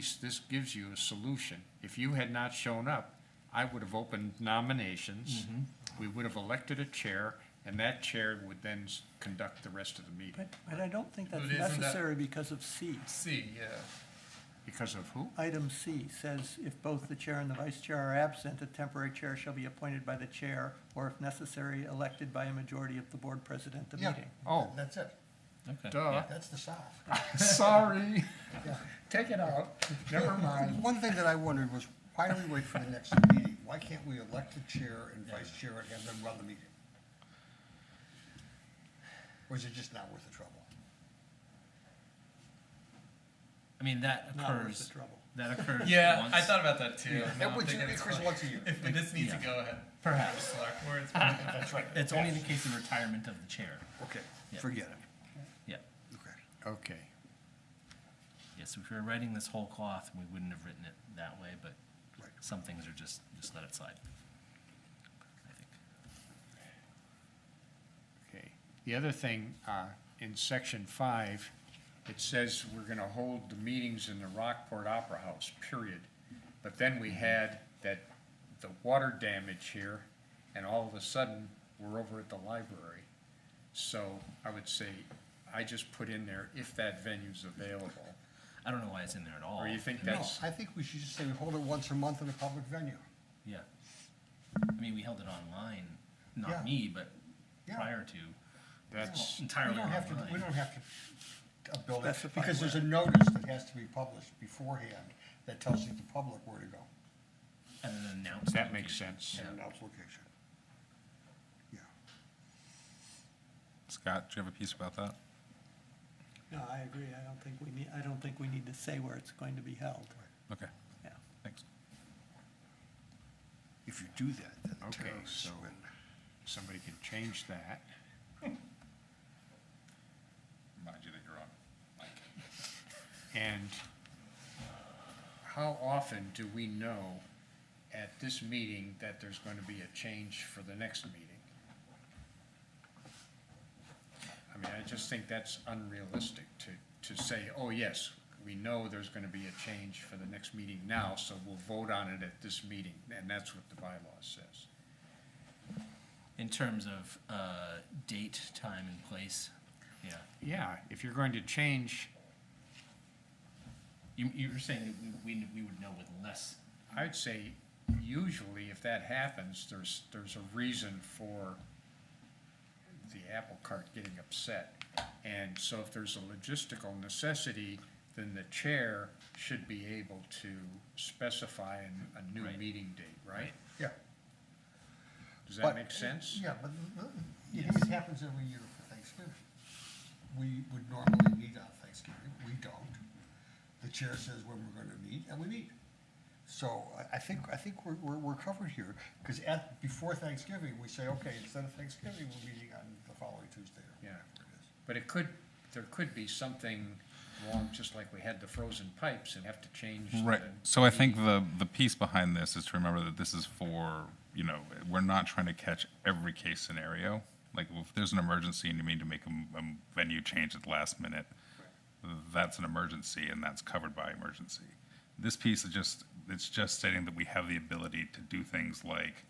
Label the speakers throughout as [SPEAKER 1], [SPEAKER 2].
[SPEAKER 1] least this gives you a solution. If you had not shown up, I would have opened nominations, we would have elected a chair, and that chair would then s- conduct the rest of the meeting.
[SPEAKER 2] But, but I don't think that's
[SPEAKER 3] But isn't that-
[SPEAKER 2] necessary because of C.
[SPEAKER 3] C,
[SPEAKER 1] uh,
[SPEAKER 3] yeah.
[SPEAKER 1] Because of who?
[SPEAKER 2] Item C says if both the chair and the vice chair are absent, a temporary chair shall be appointed by the chair, or if necessary, elected by a majority of the board president at the
[SPEAKER 3] Yeah.
[SPEAKER 2] meeting.
[SPEAKER 1] Oh,
[SPEAKER 3] That's it.
[SPEAKER 1] duh,
[SPEAKER 3] That's the South.
[SPEAKER 1] sorry. Take it out, never mind.
[SPEAKER 4] One thing that I wondered was, why do we wait for the next meeting? Why can't we elect the chair and vice chair and have them run the meeting? Or is it just not worth the trouble?
[SPEAKER 5] I mean, that
[SPEAKER 2] Not worth the
[SPEAKER 5] occurs,
[SPEAKER 2] trouble.
[SPEAKER 5] that occurs
[SPEAKER 3] Yeah,
[SPEAKER 5] once.
[SPEAKER 3] I thought about that too.
[SPEAKER 5] Yeah.
[SPEAKER 3] I don't
[SPEAKER 4] Which
[SPEAKER 3] think it's
[SPEAKER 4] occurs
[SPEAKER 3] fun.
[SPEAKER 4] once a year.
[SPEAKER 3] If this needs to
[SPEAKER 5] Yeah.
[SPEAKER 3] go ahead.
[SPEAKER 5] Perhaps.
[SPEAKER 3] Select board, it's probably- That's right.
[SPEAKER 5] It's only in the case of retirement of the chair.
[SPEAKER 4] Okay,
[SPEAKER 5] Yeah.
[SPEAKER 4] forget it.
[SPEAKER 5] Yeah.
[SPEAKER 4] Okay.
[SPEAKER 1] Okay,
[SPEAKER 5] Yes, if we were writing this whole cloth, we wouldn't have written it that way, but
[SPEAKER 4] Right.
[SPEAKER 5] some things are just, just let it slide. I think.
[SPEAKER 1] okay. The other thing, uh, in section five, it says we're gonna hold the meetings in the Rockport Opera House, period. But then
[SPEAKER 4] Mm-hmm.
[SPEAKER 1] we had that, the water damage here, and all of a sudden, we're over at the library. So I would say, I just put in there if that venue's available,
[SPEAKER 5] I don't know why it's in there at all.
[SPEAKER 1] or you think
[SPEAKER 4] No,
[SPEAKER 1] that's,
[SPEAKER 4] I think we should just say we hold it once a month in a public venue.
[SPEAKER 5] Yeah. I mean, we held it online,
[SPEAKER 4] Yeah.
[SPEAKER 5] not me, but
[SPEAKER 4] Yeah.
[SPEAKER 5] prior to,
[SPEAKER 1] that's,
[SPEAKER 4] We
[SPEAKER 5] entirely
[SPEAKER 4] don't have to, we
[SPEAKER 5] online.
[SPEAKER 4] don't have to uh, build it,
[SPEAKER 2] Specify
[SPEAKER 4] because there's a
[SPEAKER 2] where.
[SPEAKER 4] notice that has to be published beforehand that tells you the public where to go
[SPEAKER 5] And then announce.
[SPEAKER 1] that
[SPEAKER 5] the
[SPEAKER 1] makes
[SPEAKER 5] location.
[SPEAKER 1] sense.
[SPEAKER 4] and announce location. Yeah.
[SPEAKER 6] Scott, do you have a piece about that?
[SPEAKER 2] No, I agree. I don't think we need, I don't think we need to say where it's going to be held.
[SPEAKER 6] Okay,
[SPEAKER 2] Yeah.
[SPEAKER 6] thanks.
[SPEAKER 4] If you do that, then the
[SPEAKER 1] Okay,
[SPEAKER 4] terrorists
[SPEAKER 1] so-
[SPEAKER 4] win.
[SPEAKER 1] Somebody can change that.
[SPEAKER 6] Mind you that you're on.
[SPEAKER 1] And how often do we know at this meeting that there's going to be a change for the next meeting? I mean, I just think that's unrealistic to, to say, oh, yes, we know there's going to be a change for the next meeting now, so we'll vote on it at this meeting, and that's what the bylaw says.
[SPEAKER 5] In terms of, uh, date, time and place, yeah.
[SPEAKER 1] Yeah, if you're going to change,
[SPEAKER 5] You, you were saying that we, we- we would know with less
[SPEAKER 1] I'd say usually if that happens, there's, there's a reason for the apple cart getting upset. And so if there's a logistical necessity, then the chair should be able to specify an- a new
[SPEAKER 5] Right.
[SPEAKER 1] meeting date, right?
[SPEAKER 5] Right.
[SPEAKER 4] Yeah.
[SPEAKER 1] Does that
[SPEAKER 4] But-
[SPEAKER 1] make sense?
[SPEAKER 4] Yeah, but the- the- it
[SPEAKER 5] Yes.
[SPEAKER 4] it happens every year for Thanksgiving. We would normally meet on Thanksgiving, we don't. The chair says when we're gonna meet, and we meet. So I, I think, I think we're, we're, we're covered here, because at, before Thanksgiving, we say, okay, instead of Thanksgiving, we're meeting on the following Tuesday. or
[SPEAKER 1] Yeah.
[SPEAKER 4] whatever it is."
[SPEAKER 1] But it could, there could be something wrong, just like we had the frozen pipes and have to change. the-
[SPEAKER 6] Right, so I think the, the piece behind this is to remember that this is for, you know, we're not trying to catch every case scenario. Like, if there's an emergency and you need to make a, m- a venue change at the last minute, that's an emergency and that's covered by emergency. This piece is just, it's just stating that we have the ability to do things like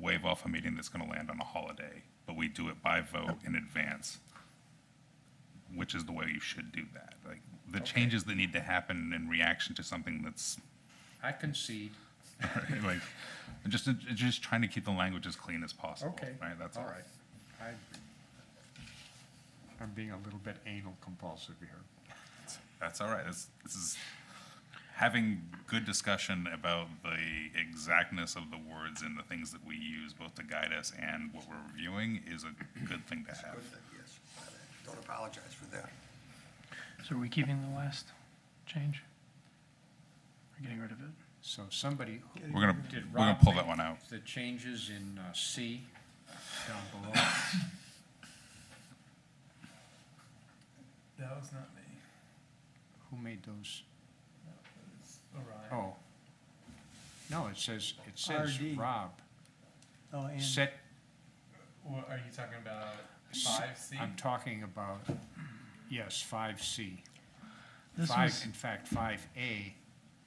[SPEAKER 6] waive off a meeting that's gonna land on a holiday, but we do it by vote in advance. which is the way you should do that. Like the changes that need to happen in reaction to something that's
[SPEAKER 1] I concede.
[SPEAKER 6] like I'm just I'm just trying to keep the language as clean as possible.
[SPEAKER 1] Okay.
[SPEAKER 6] Right. That's all.
[SPEAKER 1] All right. I- I'm being a little bit anal compulsive here.
[SPEAKER 6] That's all right. This this is having good discussion about the exactness of the words and the things that we use both to guide us and what we're reviewing is a good thing to have.
[SPEAKER 4] Good thing, yes. Don't apologize for that.
[SPEAKER 7] So are we keeping the last change? Or getting rid of it?
[SPEAKER 1] So somebody, who-
[SPEAKER 6] We're gonna
[SPEAKER 1] did
[SPEAKER 6] we're gonna
[SPEAKER 1] Rob
[SPEAKER 6] pull that
[SPEAKER 1] make
[SPEAKER 6] one out.
[SPEAKER 1] the changes in uh, C down below?
[SPEAKER 3] That was not me.
[SPEAKER 1] Who made those?
[SPEAKER 3] That was Orion.
[SPEAKER 1] Oh. No, it says, it says
[SPEAKER 2] RD.
[SPEAKER 1] Rob,
[SPEAKER 2] Oh, and.
[SPEAKER 1] set,
[SPEAKER 3] What are you talking about? Five C?
[SPEAKER 1] I'm talking about, yes, five C.
[SPEAKER 7] This
[SPEAKER 1] Five,
[SPEAKER 7] was-
[SPEAKER 1] in fact, five A